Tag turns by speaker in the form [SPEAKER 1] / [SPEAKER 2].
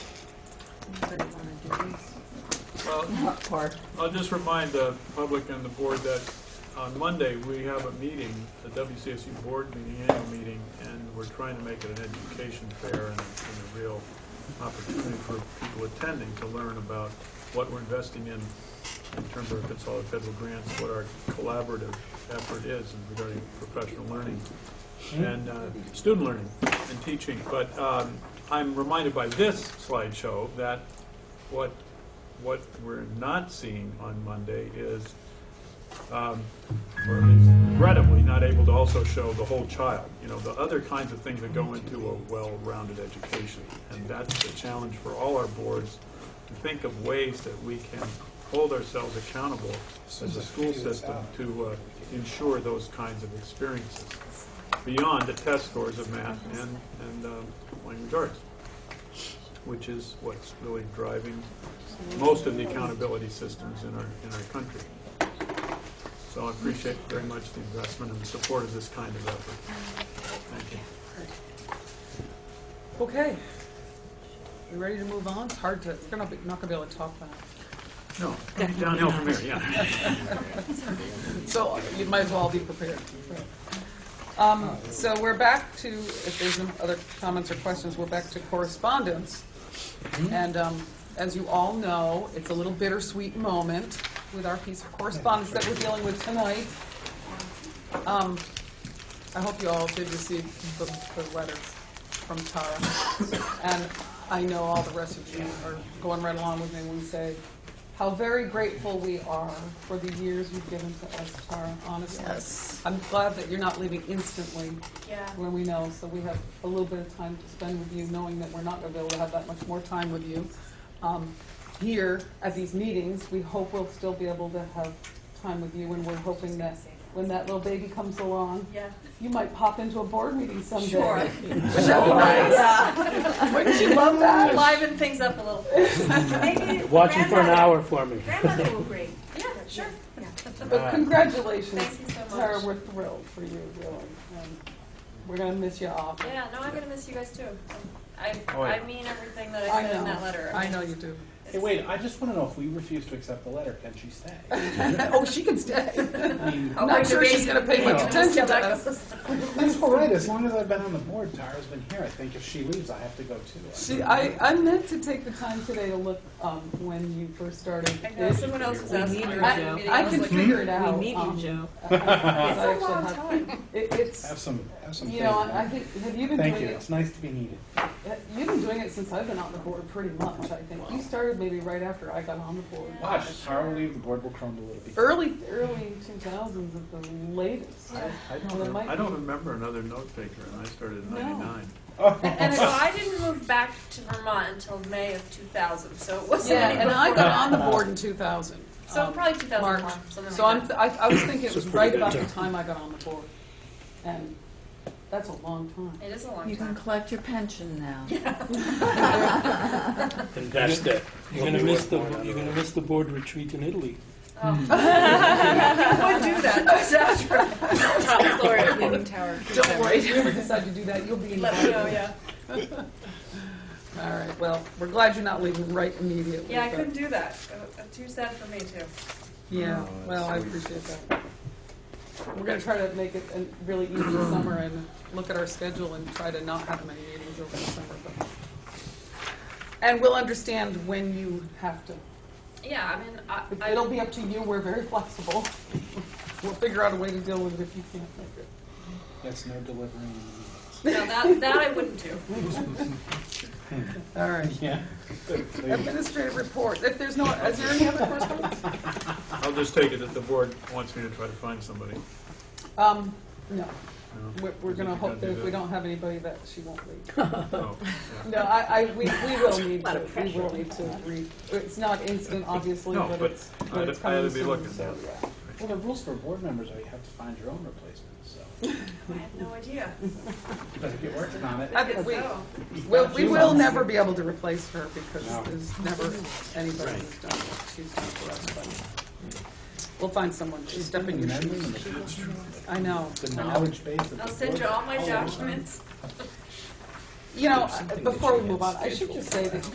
[SPEAKER 1] Anybody want to do these?
[SPEAKER 2] Well,
[SPEAKER 1] Not part.
[SPEAKER 2] I'll just remind the public and the board that on Monday, we have a meeting, the WCSU board meeting, annual meeting, and we're trying to make it an education fair and and a real opportunity for people attending to learn about what we're investing in in terms of consolidated federal grants, what our collaborative effort is in regarding professional learning and uh, student learning and teaching. But um, I'm reminded by this slideshow that what what we're not seeing on Monday is, um, or at least regrettably, not able to also show the whole child, you know, the other kinds of things that go into a well-rounded education. And that's the challenge for all our boards, to think of ways that we can hold ourselves accountable as a school system to uh, ensure those kinds of experiences, beyond the test scores of math and, and um, language arts, which is what's really driving most of the accountability systems in our, in our country. So I appreciate very much the investment and the support of this kind of effort. Thank you.
[SPEAKER 1] Okay. You ready to move on? It's hard to, it's gonna be, not gonna be able to talk fast.
[SPEAKER 2] No, coming downhill from here, yeah.
[SPEAKER 1] So you might as well be prepared. Um, so we're back to, if there's no other comments or questions, we're back to correspondence. And, um, as you all know, it's a little bittersweet moment with our piece of correspondence that we're dealing with tonight. Um, I hope you all did receive the, the letters from Tara. And I know all the rest of you are going right along with me when we say how very grateful we are for the years you've given to us, Tara, honestly.
[SPEAKER 3] Yes.
[SPEAKER 1] I'm glad that you're not leaving instantly
[SPEAKER 3] Yeah.
[SPEAKER 1] when we know, so we have a little bit of time to spend with you, knowing that we're not going to be able to have that much more time with you. Um, Here, at these meetings, we hope we'll still be able to have time with you, and we're hoping that when that little baby comes along,
[SPEAKER 3] Yeah.
[SPEAKER 1] you might pop into a board meeting someday.
[SPEAKER 3] Sure.
[SPEAKER 1] Would that be nice?
[SPEAKER 3] Yeah.
[SPEAKER 1] Wouldn't you love that?
[SPEAKER 3] Liven things up a little. Maybe
[SPEAKER 4] Watch it for an
[SPEAKER 3] grandmother-
[SPEAKER 4] hour for me.
[SPEAKER 3] Grandmother will agree. Yeah, sure. Yeah.
[SPEAKER 1] But congratulations.
[SPEAKER 3] Thank you so
[SPEAKER 1] Tara,
[SPEAKER 3] much.
[SPEAKER 1] we're thrilled for you, really. and We're going to miss you awful.
[SPEAKER 3] Yeah, no, I'm gonna miss you guys too. I,
[SPEAKER 5] Oh, yeah.
[SPEAKER 3] I mean everything that
[SPEAKER 1] I
[SPEAKER 3] I said in
[SPEAKER 1] know.
[SPEAKER 3] that letter.
[SPEAKER 1] I know you do.
[SPEAKER 5] Hey, wait, I just want to know if we refuse to accept the letter, can she stay?
[SPEAKER 1] Oh, she can stay.
[SPEAKER 5] I mean,
[SPEAKER 1] I'm not sure she's gonna pay much
[SPEAKER 5] Yeah.
[SPEAKER 1] attention to us.
[SPEAKER 5] that's all right, as long as I've been on the board, Tara's been here, I think if she leaves, I have to go too.
[SPEAKER 1] She, I, I meant to take the time today to look, um, when you first started.
[SPEAKER 3] I know, someone else was asking.
[SPEAKER 6] need
[SPEAKER 3] me
[SPEAKER 6] her,
[SPEAKER 3] about the
[SPEAKER 6] Joe.
[SPEAKER 3] meeting.
[SPEAKER 1] I
[SPEAKER 3] was
[SPEAKER 1] can
[SPEAKER 3] like,
[SPEAKER 1] figure it out.
[SPEAKER 6] We need
[SPEAKER 1] um,
[SPEAKER 6] you, Joe.
[SPEAKER 1] I- I- I
[SPEAKER 3] It's a
[SPEAKER 1] actually
[SPEAKER 3] long
[SPEAKER 1] have-
[SPEAKER 3] time.
[SPEAKER 1] It,
[SPEAKER 5] Have
[SPEAKER 1] it's,
[SPEAKER 5] some, have some
[SPEAKER 1] you
[SPEAKER 5] faith.
[SPEAKER 1] know, I I think, have you been doing
[SPEAKER 5] Thank you,
[SPEAKER 1] it?
[SPEAKER 5] it's nice to be needed.
[SPEAKER 1] You've been doing it since I've been on the board pretty much, I think. You started maybe right after I got on the board.
[SPEAKER 5] Watch, Tara will leave, the board will crumble, it'll be.
[SPEAKER 1] Early, early two thousands at the latest.
[SPEAKER 5] I I don't
[SPEAKER 1] Well, it
[SPEAKER 5] know.
[SPEAKER 1] might
[SPEAKER 2] I don't
[SPEAKER 1] be-
[SPEAKER 2] remember another note taker, and I started in
[SPEAKER 1] No.
[SPEAKER 2] ninety-nine.
[SPEAKER 5] Oh.
[SPEAKER 3] And so I didn't move back to Vermont until May of two thousand, so it wasn't
[SPEAKER 1] Yeah,
[SPEAKER 3] any
[SPEAKER 1] and I
[SPEAKER 3] before
[SPEAKER 1] got
[SPEAKER 3] that.
[SPEAKER 1] on the board in two thousand. Um,
[SPEAKER 3] So probably two thousand one, something like that.
[SPEAKER 1] So I'm, I, I was thinking it was right about the time I got on the board, and that's a long time.
[SPEAKER 3] It is a long
[SPEAKER 6] You can
[SPEAKER 3] time.
[SPEAKER 6] collect your pension now.
[SPEAKER 4] Invest it.
[SPEAKER 7] You're gonna miss the, you're gonna miss the board retreat in Italy.
[SPEAKER 3] Oh. Would do that, just after.
[SPEAKER 6] Top floor at Leaning Tower.
[SPEAKER 1] Don't worry, if you ever decide to do that, you'll be
[SPEAKER 3] Let me
[SPEAKER 1] invited.
[SPEAKER 3] know, yeah.
[SPEAKER 1] All right, well, we're glad you're not leaving right immediately.
[SPEAKER 3] Yeah, I
[SPEAKER 1] but-
[SPEAKER 3] couldn't do that. Uh, Too sad for me too.
[SPEAKER 1] Yeah,
[SPEAKER 5] Oh,
[SPEAKER 1] well, I
[SPEAKER 5] that's
[SPEAKER 1] appreciate that. We're gonna try to make it a really easy summer and look at our schedule and try to not have many meetings over the summer. but- And we'll understand when you have to.
[SPEAKER 3] Yeah, I mean, I,
[SPEAKER 1] It-
[SPEAKER 3] I
[SPEAKER 1] It'll be up to you, we're very flexible. We'll figure out a way to deal with it if you can't make it.
[SPEAKER 5] Yes, no delivering.
[SPEAKER 3] no, that that I wouldn't do.
[SPEAKER 1] All right.
[SPEAKER 5] Yeah.
[SPEAKER 1] Administrative report, if there's no, is there any other correspondence?
[SPEAKER 2] I'll just take it that the board wants me to try to find somebody.
[SPEAKER 1] Um, no,
[SPEAKER 2] No?
[SPEAKER 1] we're, we're gonna hope that if we don't have anybody that she won't leave.
[SPEAKER 2] Oh, yeah.
[SPEAKER 1] No, I, I, we, we will need to, we will need to re, it's not instant, obviously,
[SPEAKER 2] No,
[SPEAKER 1] but
[SPEAKER 2] but
[SPEAKER 1] it's,
[SPEAKER 2] I'd-
[SPEAKER 1] but it's
[SPEAKER 2] I'd
[SPEAKER 1] coming
[SPEAKER 2] be
[SPEAKER 1] soon,
[SPEAKER 2] looking.
[SPEAKER 1] so, yeah.
[SPEAKER 5] Well, the rules for board members are you have to find your own replacement, so,
[SPEAKER 3] I have no idea.
[SPEAKER 5] but if you're working on it.
[SPEAKER 1] I
[SPEAKER 3] I
[SPEAKER 1] think
[SPEAKER 3] guess
[SPEAKER 1] we,
[SPEAKER 3] so.
[SPEAKER 1] we'll- we will
[SPEAKER 5] She's-
[SPEAKER 1] never be able to replace her because
[SPEAKER 5] No.
[SPEAKER 1] there's never anybody who's done what she's done for us, but we'll find someone, she's stepping
[SPEAKER 5] The
[SPEAKER 1] your
[SPEAKER 5] memory
[SPEAKER 1] shoes.
[SPEAKER 5] and the concentration,
[SPEAKER 1] I know.
[SPEAKER 5] The
[SPEAKER 1] I know.
[SPEAKER 5] knowledge base of the
[SPEAKER 3] I'll send you
[SPEAKER 5] board-
[SPEAKER 3] all my
[SPEAKER 5] Oh,
[SPEAKER 3] documents.
[SPEAKER 1] You know,
[SPEAKER 7] Something that
[SPEAKER 1] before
[SPEAKER 7] you
[SPEAKER 1] we
[SPEAKER 7] had
[SPEAKER 1] move on, I should
[SPEAKER 7] scheduled
[SPEAKER 1] just say that